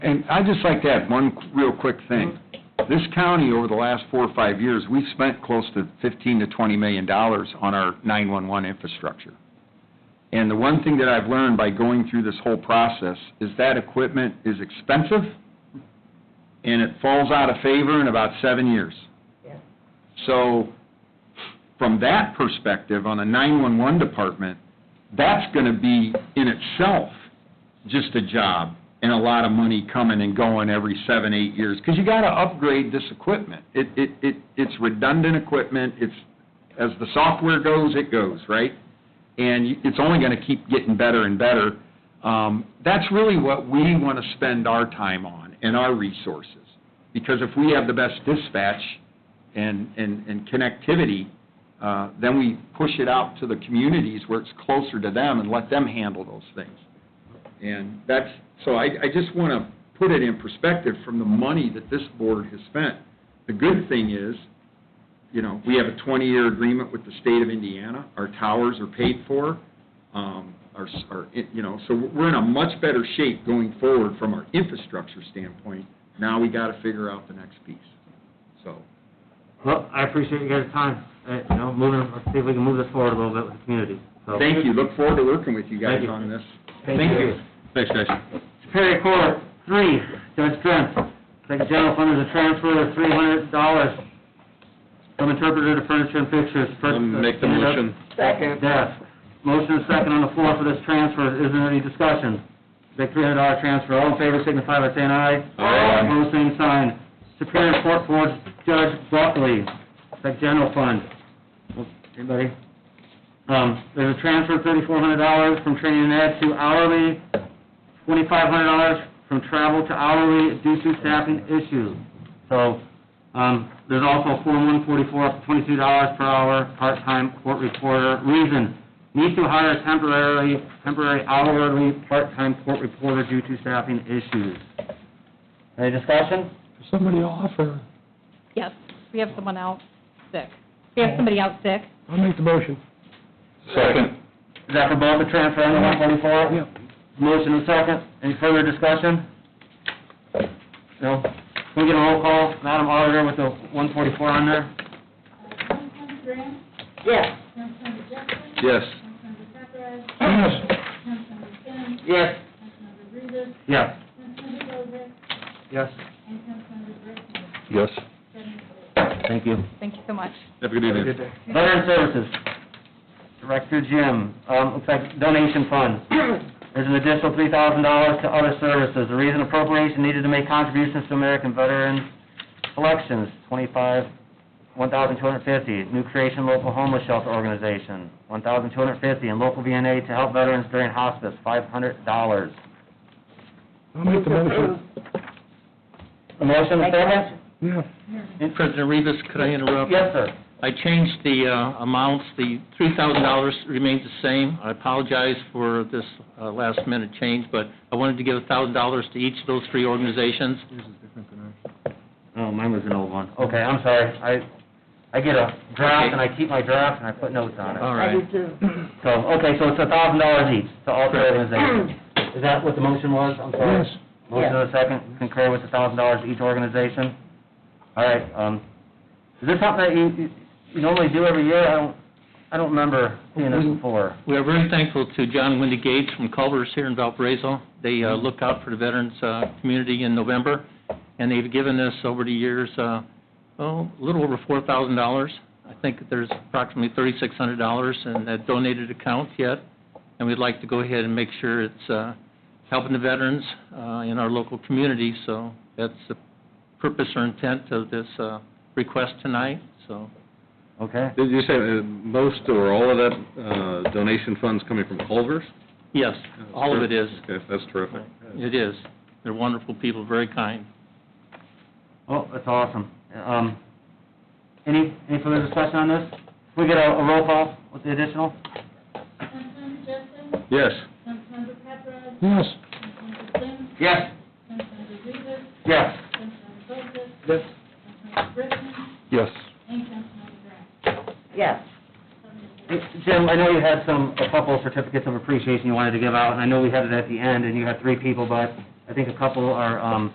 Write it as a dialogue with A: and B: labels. A: And I'd just like to add one real quick thing. This county, over the last four or five years, we've spent close to 15 to 20 million dollars on our 911 infrastructure. And the one thing that I've learned by going through this whole process is that equipment is expensive, and it falls out of favor in about seven years.
B: Yeah.
A: So, from that perspective, on a 911 department, that's going to be in itself just a job and a lot of money coming and going every seven, eight years, because you got to upgrade this equipment. It, it, it, it's redundant equipment, it's, as the software goes, it goes, right? And you- it's only going to keep getting better and better. Um, That's really what we want to spend our time on and our resources, because if we have the best dispatch and, and, and connectivity, uh, then we push it out to the communities where it's closer to them and let them handle those things. And that's, so I, I just want to put it in perspective from the money that this board has spent. The good thing is, you know, we have a 20-year agreement with the state of Indiana. Our towers are paid for, um, our, s- our, it- you know, so we're in a much better shape going forward from our infrastructure standpoint. Now we got to figure out the next piece, so.
C: Well, I appreciate you guys' time, Uh, you know, moving, let's see if we can move this forward a little bit with the community, so.
A: Thank you, look forward to working with you guys
C: Thank you.
A: on this.
C: Thank you.
A: Thanks, guys.
C: Superior Court, three, Judge Trent, second general fund is a transfer of three hundred dollars from interpreter to furniture and fixtures. First, uh, stand up.
B: Second.
C: Yes. Motion is second on the floor for this transfer. Is there any discussion? Big three hundred dollar transfer. All in favor signify by saying aye.
A: Aye.
C: Opposed, same sign. Superior Court Board Judge Buckley, Sec General Fund. Anybody? Um, there's a transfer of thirty-four hundred dollars from training and ed to hourly, twenty-five hundred dollars from travel to hourly due to staffing issues. So, um, there's also Form 144, up to twenty-two dollars per hour, part-time court reporter. Reason, need to hire temporarily, temporary hourly, part-time court reporter due to staffing issues. Any discussion?
D: somebody off, or
E: Yes, we have someone out sick. We have somebody out sick.
D: I'll make the motion.
A: Second.
C: Is that for both the transfer and the 144?
D: Yep.
C: Motion and second. Any further discussion? No? Can we get a roll call, Madam Auditor, with the 144 on there?
F: Councilmember Graham?
B: Yes.
F: Councilmember Jeffries?
A: Yes.
F: Councilmember Papera?
D: Yes.
F: Councilmember Finn?
C: Yes.
F: Councilmember Reavis?
C: Yes.
F: Councilmember Bozick?
C: Yes.
F: And Councilmember Brickman?
A: Yes.
F: Seven votes.
C: Thank you.
E: Thank you so much.
A: Have a good evening.
C: Veteran Services, Director Jim, um, looks like donation fund. There's an additional three thousand dollars to other services. The reason appropriation needed to make contributions to American Veterans Elections, twenty-five, one thousand two hundred fifty. New creation local homeless shelter organization, one thousand two hundred fifty. And local VNA to help veterans during hospice, five hundred dollars.
D: I'll make the motion.
C: A motion, a second?
D: Yeah.
G: President Rivas, could I interrupt?
C: Yes, sir.
G: I changed the uh, amounts, the $3,000 remains the same. I apologize for this last-minute change, but I wanted to give $1,000 to each of those three organizations.
C: Oh, mine was an old one. Okay, I'm sorry. I, I get a draft and I keep my draft and I put notes on it.
G: All
B: I
G: right.
B: do too.
C: So, okay, so it's a thousand dollars each to all three organizations. Is that what the motion was? I'm sorry.
D: Yes.
C: Motion and a second, concur with a thousand dollars each organization? All right, um, is this something that you, you- you normally do every year? I don't, I don't remember seeing this before.
G: We are very thankful to John Wendy Gates from Culver's here in Valparaiso. They uh, look out for the veterans uh, community in November, and they've given us over the years, uh, oh, a little over $4,000. I think that there's approximately $3,600 in that donated account yet, and we'd like to go ahead and make sure it's uh, helping the veterans uh, in our local community, so that's the purpose or intent of this uh, request tonight, so.
C: Okay,
H: Did you say uh, most or all of that uh, donation funds coming from Culver's?
G: Yes, all of it is.
H: Okay, that's terrific.
G: It is. They're wonderful people, very kind.
C: oh, that's awesome. Um, any, any further discussion on this? Can we get a, a roll call with the additional?
F: Councilmember Jeffries?
H: Yes.
F: Councilmember Papera?
D: Yes.
F: Councilmember Finn?
C: Yes.
F: Councilmember Reavis?
C: Yes.
F: Councilmember Bozick?
D: Yes.
F: Councilmember Brickman?
H: Yes.
F: And Councilmember Graham?
B: Yes.
C: Jim, I know you had some, a couple certificates of appreciation you wanted to give out, and I know we had it at the end, and you had three people, but I I think a couple are, um,